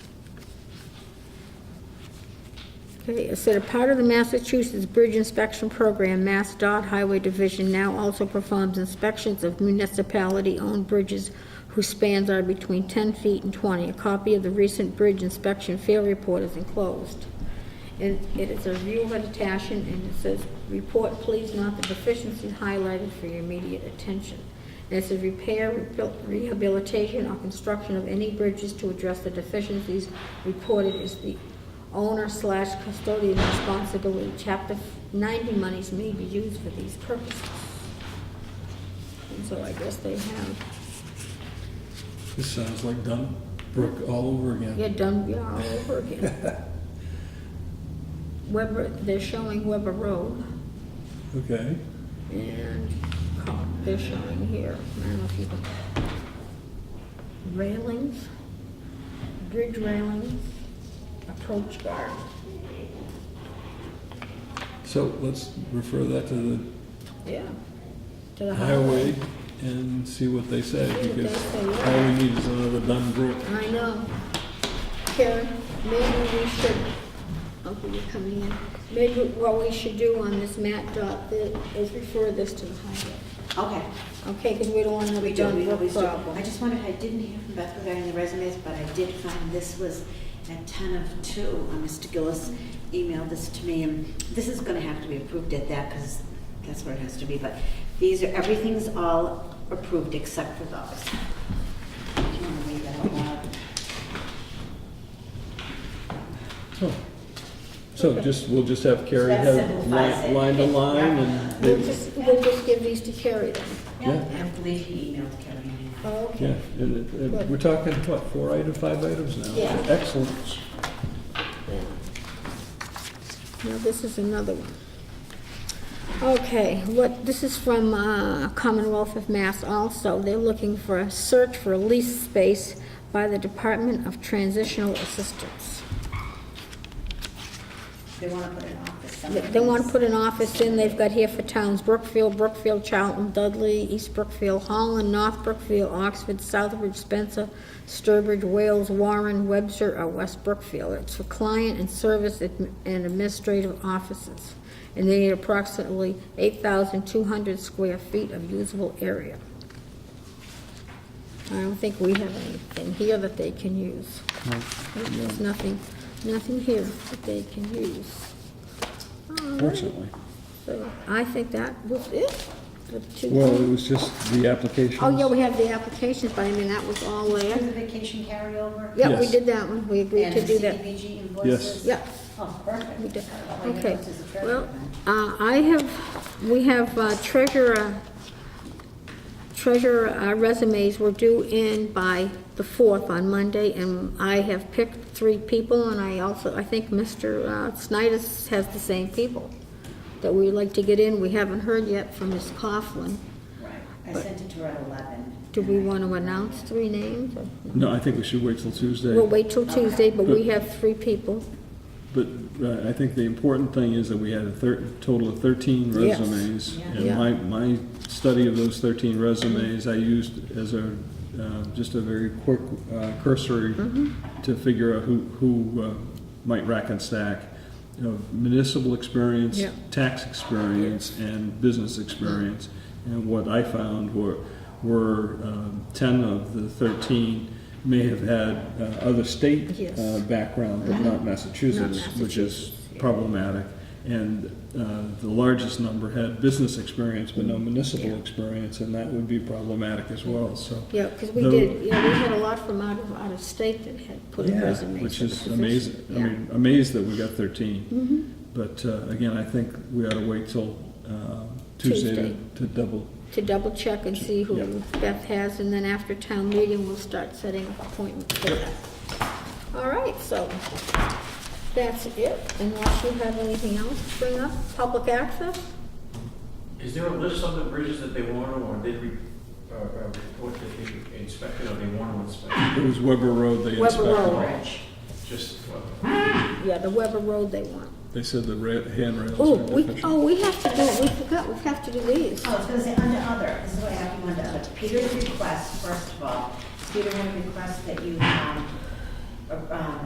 Okay, it said a part of the Massachusetts Bridge Inspection Program, Mass DOT Highway Division now also performs inspections of municipality-owned bridges whose spans are between 10 feet and 20. A copy of the recent bridge inspection fail report is enclosed. And it is a review of attachment, and it says, "Report, please, not the deficiencies highlighted for your immediate attention." And it says, "Repair, rebuil- rehabilitation, or construction of any bridges to address the deficiencies reported is the owner slash custodian responsibility. Chapter 90 monies may be used for these purposes." And so I guess they have, This sounds like Dunbrook all over again. yeah, done, yeah, all over again. Weber, they're showing Weber Road. Okay. And caught fish on here, I don't know if you can. Railings, bridge railings, approach guard. So let's refer that to Uh-huh. Yeah. To the the highway. highway and see what they say, See what they because say, yeah. all we need is another Dunbrook. I know. Karen, maybe we should, okay, you're coming in. Maybe what we should do on this map dot thi- is refer this to the highway. Okay, Okay, because we don't want we another do, we done always work do. problem. I just wondered, I didn't hear from Beth regarding the resumes, but I did find this was at ten of two. Uh, Mr. Gillis emailed this to me, and this is gonna have to be approved at that, because that's where it has to be, but these are, everything's all approved except for those. If you wanna read that out loud. So- So just, we'll just have Carrie That have simplifies line it. line to line and, We'll they- just, we'll just give these to Carrie then. Yeah. I believe he emailed Kevin. Oh, Okay. yeah. and it- and We're talking, what, four items, five items now? Yeah. Excellent. Now, this is another one. Okay, what, this is from uh, Commonwealth of Mass also. They're looking for a search for lease space by the Department of Transitional Assistance. They wanna put an office They somewhere. they want to put an office in, they've got here for towns, Brookfield, Brookfield, Charlton, Dudley, East Brookfield, Holland, North Brookfield, Oxford, Southbridge, Spencer, Sturbridge, Wales, Warren, Webster, or West Brookfield. It's for client and service admi- and administrative offices. And they need approximately 8,200 square feet of usable area. I don't think we have anything here that they can use. There's nothing, nothing here that they can use. All right. Fortunately. So I think that was it. The two- Well, it was just the applications. Oh, yeah, we have the applications, but I mean, that was all Through there. the vacation carryover. Yeah, we Yes. did that one, we agreed And to do the that. CDBG invoices? Yeah. Oh, perfect. We did, All your okay. notes is a treasure Well, then. uh, I have, we have uh, treasurer, treasurer uh, resumes were due in by the 4th on Monday, and I have picked three people, and I also, I think Mr. uh, Snyder has the same people that we like to get in. We haven't heard yet from Ms. Coughlin. Right, I sent it to her at eleven. Do we want to announce three names? or- No, I think we should wait till Tuesday. We'll wait till Tuesday, but we have three people. But uh, I think the important thing is that we had a thir- total of thirteen Yes. resumes. Yeah. And Yeah. my, my study of those thirteen resumes, I used as a, uh, just a very quick uh, cursory Mm-hmm. to figure out who, who uh, might rack and stack. You know, municipal experience, Yeah. tax experience, and business experience. And what I found were, were um, ten of the thirteen may have had uh, other state Yes. Uh-huh. uh, background, but not Massachusetts, which is problematic. And uh, the largest number had business experience, but no municipal experience, and that would be problematic as well, so. Yeah, because we No. did, yeah, we had a lot from out of, out of state that had put in Yeah, resumes. Which for the is position. amazing, I Yeah. Mm-hmm. mean, amazed that we got thirteen. But uh, again, I think we ought to wait till uh, Tuesday Tuesday. to- to double. To double check and see who Beth has, and then after town meeting, we'll start setting up appointments for that. All right, so that's it, unless you have anything else to bring up, public access? Is there a list of the bridges that they want to, or did we, uh, uh, report that they inspected, or they want to inspect? It was Weber Road they Weber inspected. Road. Just, well, Yeah, the Weber Road they want. They said the ra- handrails Oh, were we, deficient. oh, we have to do, we forgot, we have to do these. Oh, it's gonna say under other, this is what I have you under other. Peter's request, first of all, Peter would request that you, um, uh, um,